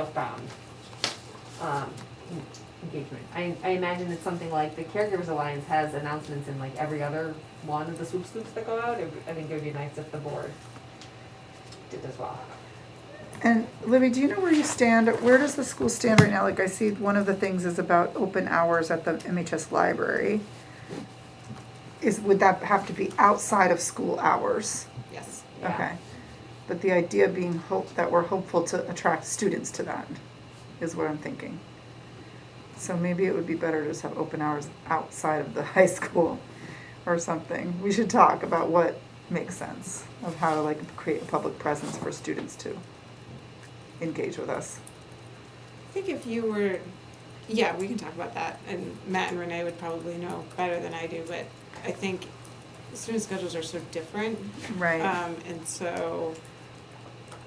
outbound um, engagement. I, I imagine it's something like the Caregivers Alliance has announcements in like every other one of the swoop scoops that go out. It would- I think it would be nice if the board did as well. And Libby, do you know where you stand, where does the school stand right now? Like, I see one of the things is about open hours at the MHS library. Is, would that have to be outside of school hours? Yes. Yeah. Okay. But the idea being hope, that we're hopeful to attract students to that is what I'm thinking. So maybe it would be better to just have open hours outside of the high school or something. We should talk about what makes sense of how to like create a public presence for students to engage with us. I think if you were, yeah, we can talk about that, and Matt and Renee would probably know better than I do, but I think student schedules are so different, Right. um, and so,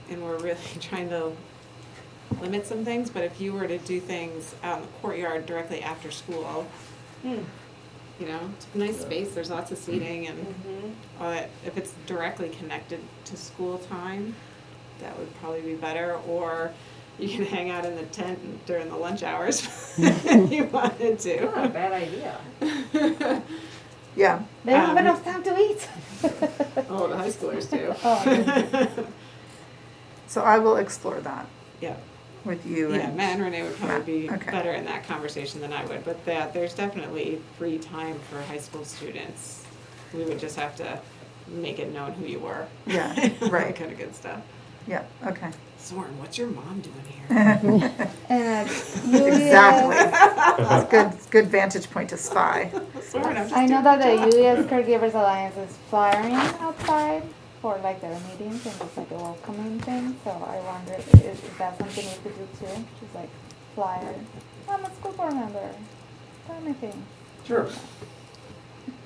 and we're really trying to limit some things, but if you were to do things out in the courtyard directly after school, Hmm. you know, it's a nice space, there's lots of seating and Mhm. all that, if it's directly connected to school time, that would probably be better, or you can hang out in the tent during the lunch hours if you wanted Not a to. bad idea. Yeah. They don't have Um, enough time to eat. Oh, the high schoolers do. oh, So I will explore that Yeah, with you yeah, and, Matt and Renee would probably be Matt, okay. better in that conversation than I would, but that, there's definitely free time for high school students. We would just have to make it known who you were. yeah, right. Kind of good stuff. Yeah, okay. Soren, what's your mom doing here? And Exactly. Yulia, It's good, it's good vantage point to spy. Soren, I'm just I know doing that my the job. Yulia's Caregivers Alliance is flyering outside for like their meetings and it's like a welcoming thing. So I wonder if, if that's something we could do too. Just like flyer. I'm a school board member. Tell me things. Sure.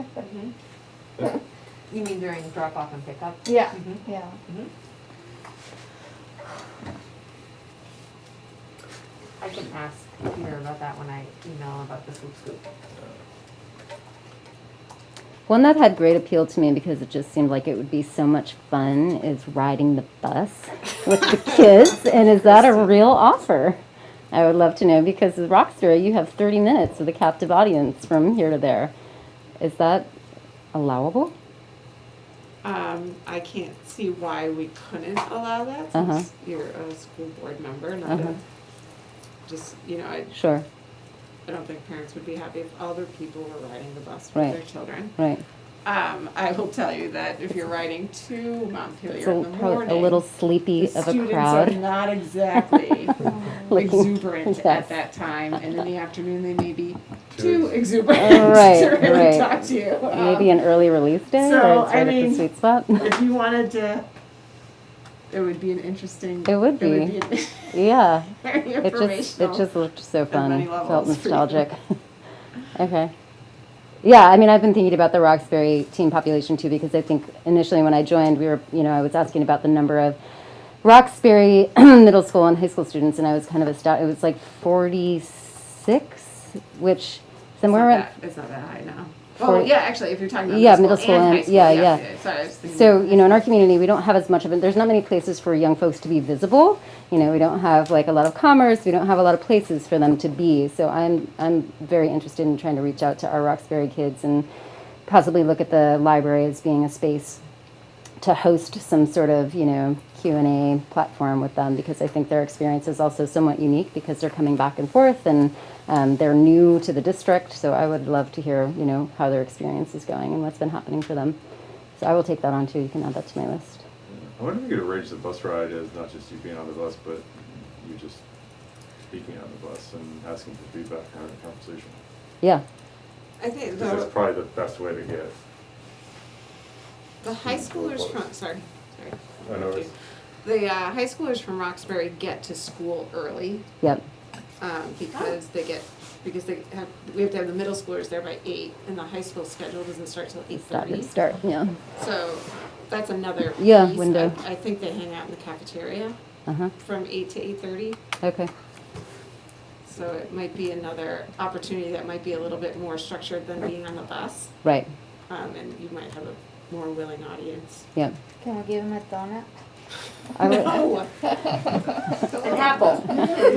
Mm-hmm. You mean during drop off and pickup? Yeah. Mhm. Yeah. Mhm. I can ask Peter about that when I email about the swoop scoop. One that had great appeal to me because it just seemed like it would be so much fun is riding the bus with the kids. And is that a real offer? I would love to know because with Rockstar, you have 30 minutes with a captive audience from here to there. Is that allowable? Um, I can't see why we couldn't allow that Uh-huh. since you're a school board member, not Uh-huh. a, just, you know, I, Sure, I don't think parents would be happy if other people were riding the bus with Right. their children. right. Um, I will tell you that if you're riding to It's Montpelier a, in the probably morning, a little the sleepy of a students are crowd. not exactly Looking- exuberant Yes. at that time, and in the afternoon, they may be Too too exuberant Right, to really right. talk to you. Um, Maybe an early release day so, or it's I right at mean- the sweet spot. if you wanted to, it would be an interesting. It would It be. would be an yeah. very It just it informational. just looked so many fun. levels Felt for you. nostalgic. okay. Yeah, I mean, I've been thinking about the Roxbury teen population too because I think initially when I joined, we were, you know, I was asking about the number of Roxbury middle school and high school students, and I was kind of astounded. It was like forty six, which It's not somewhere around that- It's not that high now. For- Oh, yeah, actually, if you're talking about Yeah, middle middle school school and high and- school, yeah, yeah. yeah. yeah. Sorry, I was thinking. So, you know, in our community, we don't have as much of it. There's not many places for young folks to be visible. You know, we don't have like a lot of commerce. We don't have a lot of places for them to be. So I'm, I'm very interested in trying to reach out to our Roxbury kids and possibly look at the library as being a space to host some sort of, you know, Q&A platform with them because I think their experience is also somewhat unique because they're coming back and forth and um, they're new to the district. So I would love to hear, you know, how their experience is going and what's been happening for them. So I will take that on too. You can add that to my list. I wonder if we could arrange the bus ride as not just you being on the bus, but you just speaking on the bus and asking for feedback and having a conversation. Yeah. I think 'Cause that's the, probably the best way to get, the high schoolers from, sorry, sorry. I know it's- The uh, high schoolers from Roxbury get to school early Yep. um, because they get, because they have, we have to have the middle schoolers there by eight and the high school schedule doesn't start till eight Stop thirty. and start. Yeah. So that's another piece. Yeah, window. I I think they hang out in the cafeteria Uh huh. from eight to eight thirty. Okay. So it might be another opportunity that might be a little bit more structured than being on the bus. Right. Um, and you might have a more willing audience. Yep. Can we give him a donut? I would, No. An apple.